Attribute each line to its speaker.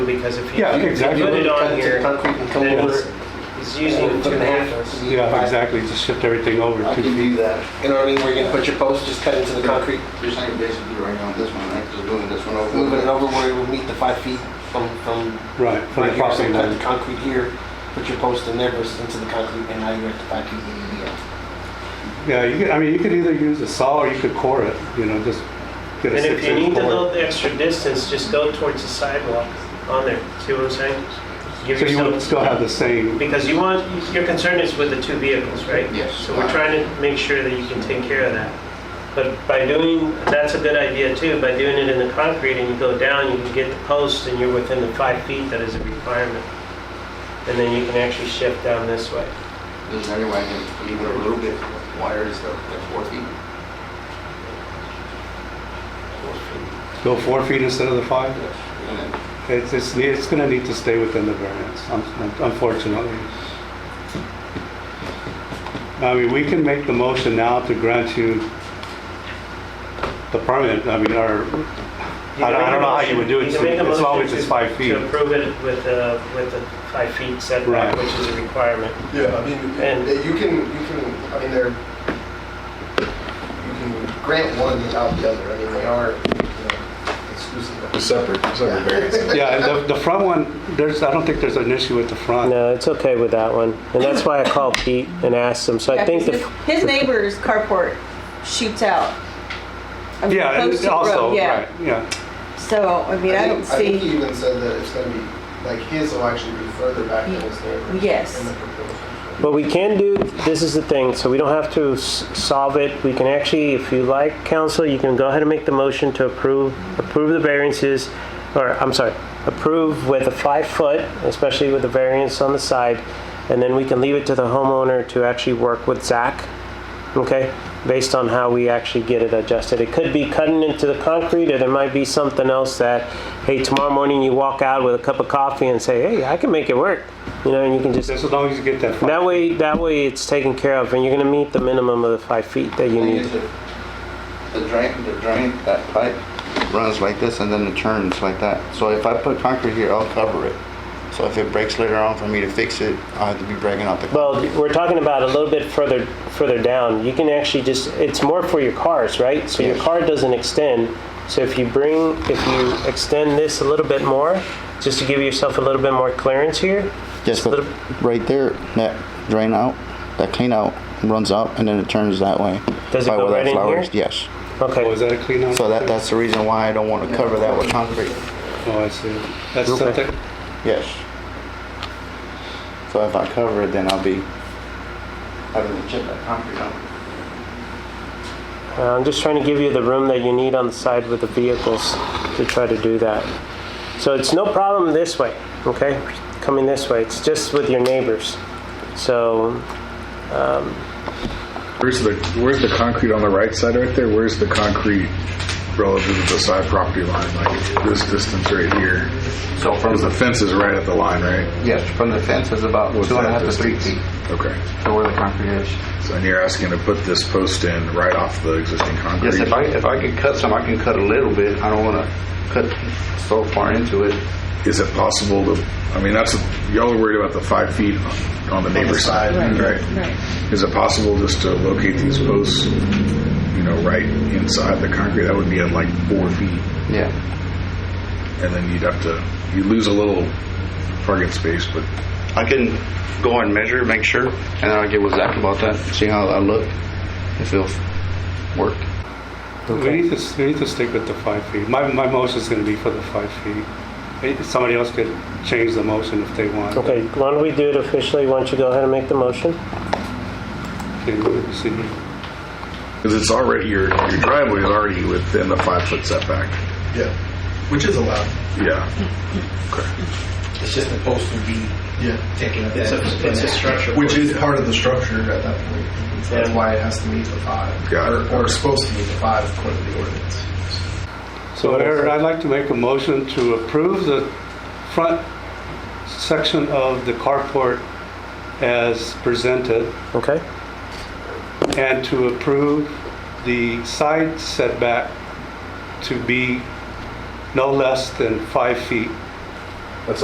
Speaker 1: because if you
Speaker 2: Yeah,
Speaker 1: if you
Speaker 2: exactly.
Speaker 1: put it on
Speaker 2: Tons of
Speaker 1: here,
Speaker 2: concrete and come
Speaker 1: then
Speaker 2: over.
Speaker 1: it's- it's using two and a half.
Speaker 2: Yeah, exactly, just shift everything over
Speaker 3: I
Speaker 2: two
Speaker 3: can do
Speaker 2: feet.
Speaker 3: that.
Speaker 2: You know what I mean, where you can put your post, just cut into the concrete,
Speaker 3: Just like basically right now, this one, right? Just moving this one over.
Speaker 2: moving it over where it will meet the five feet from, from.
Speaker 4: Right, from
Speaker 2: right
Speaker 4: the
Speaker 2: here. So
Speaker 4: property
Speaker 2: Cut the
Speaker 4: line.
Speaker 2: concrete here, put your post in there versus into the concrete, and now you're at the five feet you need to be at.
Speaker 4: Yeah, you could, I mean, you could either use a saw or you could core it, you know, just get
Speaker 1: And
Speaker 4: a
Speaker 1: if you need
Speaker 4: six-inch
Speaker 1: a little
Speaker 4: core.
Speaker 1: extra distance, just go towards the sidewalk on there. See what I'm saying? Give
Speaker 4: So you would
Speaker 1: yourself,
Speaker 4: still have the same,
Speaker 1: because you want, your concern is with the two vehicles, right?
Speaker 3: Yes.
Speaker 1: So we're trying to make sure that you can take care of that. But by doing, that's a good idea too, by doing it in the concrete and you go down, you can get the post and you're within the five feet that is a requirement. And then you can actually shift down this way.
Speaker 3: There's another way, I can leave it a little bit wider, is the the four feet. Four feet.
Speaker 4: go four feet instead of the five?
Speaker 3: And then
Speaker 4: It's, it's, it's gonna need to stay within the variance, un- unfortunately. I mean, we can make the motion now to grant you the permit, I mean, or,
Speaker 1: You
Speaker 4: I don't-
Speaker 1: can
Speaker 4: I don't
Speaker 1: make a
Speaker 4: know how you would do
Speaker 1: motion-
Speaker 4: it,
Speaker 1: you can
Speaker 4: so-
Speaker 1: make a
Speaker 4: as long
Speaker 1: motion
Speaker 4: as it's
Speaker 1: to-
Speaker 4: five feet.
Speaker 1: To approve it with a, with a five feet setback,
Speaker 4: Right.
Speaker 1: which is a requirement.
Speaker 5: Yeah, I mean,
Speaker 1: And-
Speaker 5: you can, you can, I mean, they're, you can grant one without the other. I mean, they are, you know, exclusive.
Speaker 6: Separate, separate variances.
Speaker 4: yeah, and the, the front one, there's, I don't think there's an issue with the front.
Speaker 1: No, it's okay with that one. And that's why I called Pete and asked him, so I
Speaker 7: Yeah,
Speaker 1: think the,
Speaker 7: his, his neighbor's carport shoots out. of the
Speaker 4: Yeah,
Speaker 7: post
Speaker 4: it's
Speaker 7: to the
Speaker 4: also,
Speaker 7: road, yeah.
Speaker 4: right, yeah.
Speaker 7: So, I mean, I don't
Speaker 5: think- I think
Speaker 7: see,
Speaker 5: he even said that it's gonna be, like, his will actually be further back than his neighbor's.
Speaker 7: Yes.
Speaker 5: in the proposal.
Speaker 1: but we can do, this is the thing, so we don't have to s- solve it. We can actually, if you like, council, you can go ahead and make the motion to approve, approve the variances, or, I'm sorry, approve with a five foot, especially with the variance on the side, and then we can leave it to the homeowner to actually work with Zach okay, based on how we actually get it adjusted. It could be cutting into the concrete, or there might be something else that, hey, tomorrow morning you walk out with a cup of coffee and say, hey, I can make it work, you know, and you can just,
Speaker 4: Just as long as you get that five.
Speaker 1: that way, that way it's taken care of, and you're gonna meet the minimum of the five feet that you
Speaker 3: Thing
Speaker 1: need.
Speaker 3: is, the- The drain, the drain, that pipe runs like this and then it turns like that. So if I put concrete here, I'll cover it. So if it breaks later on for me to fix it, I have to be breaking out the.
Speaker 1: Well, we're talking about a little bit further, further down. You can actually just, it's more for your cars, right? So your
Speaker 3: Yes.
Speaker 1: car doesn't extend. So if you bring, if you extend this a little bit more, just to give yourself a little bit more clearance here,
Speaker 3: Yes, but
Speaker 1: little-
Speaker 3: right there, that drain out, that clean out runs up and then it turns that way.
Speaker 1: Does it
Speaker 3: By
Speaker 1: go
Speaker 3: where that
Speaker 1: right in
Speaker 3: flower
Speaker 1: here?
Speaker 3: is, Yes.
Speaker 1: okay.
Speaker 4: Was that a clean out?
Speaker 3: So that, that's the reason why I don't want to cover that with concrete.
Speaker 4: Oh, I see. That's
Speaker 1: Okay.
Speaker 4: something,
Speaker 3: Yes. So if I cover it, then I'll be having to chip that concrete out.
Speaker 1: Uh, I'm just trying to give you the room that you need on the side with the vehicles to try to do that. So it's no problem this way, okay? Coming this way, it's just with your neighbors. So
Speaker 6: Where's the, where's the concrete on the right side right there? Where's the concrete relative to the side property line? Like this distance right here?
Speaker 3: So from
Speaker 6: Because the fence is right at the line, right?
Speaker 3: Yes, from the fence is about
Speaker 6: What's
Speaker 3: two and a
Speaker 6: that
Speaker 3: half to three feet
Speaker 6: distance? Okay.
Speaker 3: to where the concrete is.
Speaker 6: So and you're asking to put this post in right off the existing concrete?
Speaker 3: Yes, if I, if I could cut some, I can cut a little bit. I don't want to cut so far into it.
Speaker 6: Is it possible to, I mean, that's, y'all are worried about the five feet on the neighbor's side, right? Is it possible just to locate these posts, you know, right inside the concrete? That would be at like four feet.
Speaker 3: Yeah.
Speaker 6: and then you'd have to you lose a little target space, but
Speaker 3: I can go and measure, make sure, and then I'll get with Zach about that, see how I look, if it'll work.
Speaker 4: we need to, s- we need to stick with the five feet. My, my motion's gonna be for the five feet. Eh, Somebody else could change the motion if they want.
Speaker 1: Okay, why don't we do it officially? Why don't you go ahead and make the motion?
Speaker 4: Okay, let me see.
Speaker 6: because it's already your your driveway is already within the five foot setback.
Speaker 5: Yeah, which is allowed.
Speaker 6: Yeah,
Speaker 8: It's just the post would be
Speaker 5: Yeah.
Speaker 8: taken up.
Speaker 1: It's
Speaker 8: as-
Speaker 1: a, it's a structure.
Speaker 5: Which is part of the structure at that point. That's why it has to meet the five.
Speaker 6: Got
Speaker 5: Or-
Speaker 6: it.
Speaker 5: Or is supposed to meet the five according to the ordinance.
Speaker 4: So Mayor, I'd like to make a motion to approve the front section of the carport as presented
Speaker 1: Okay?
Speaker 4: and to approve the side setback to be no less than five feet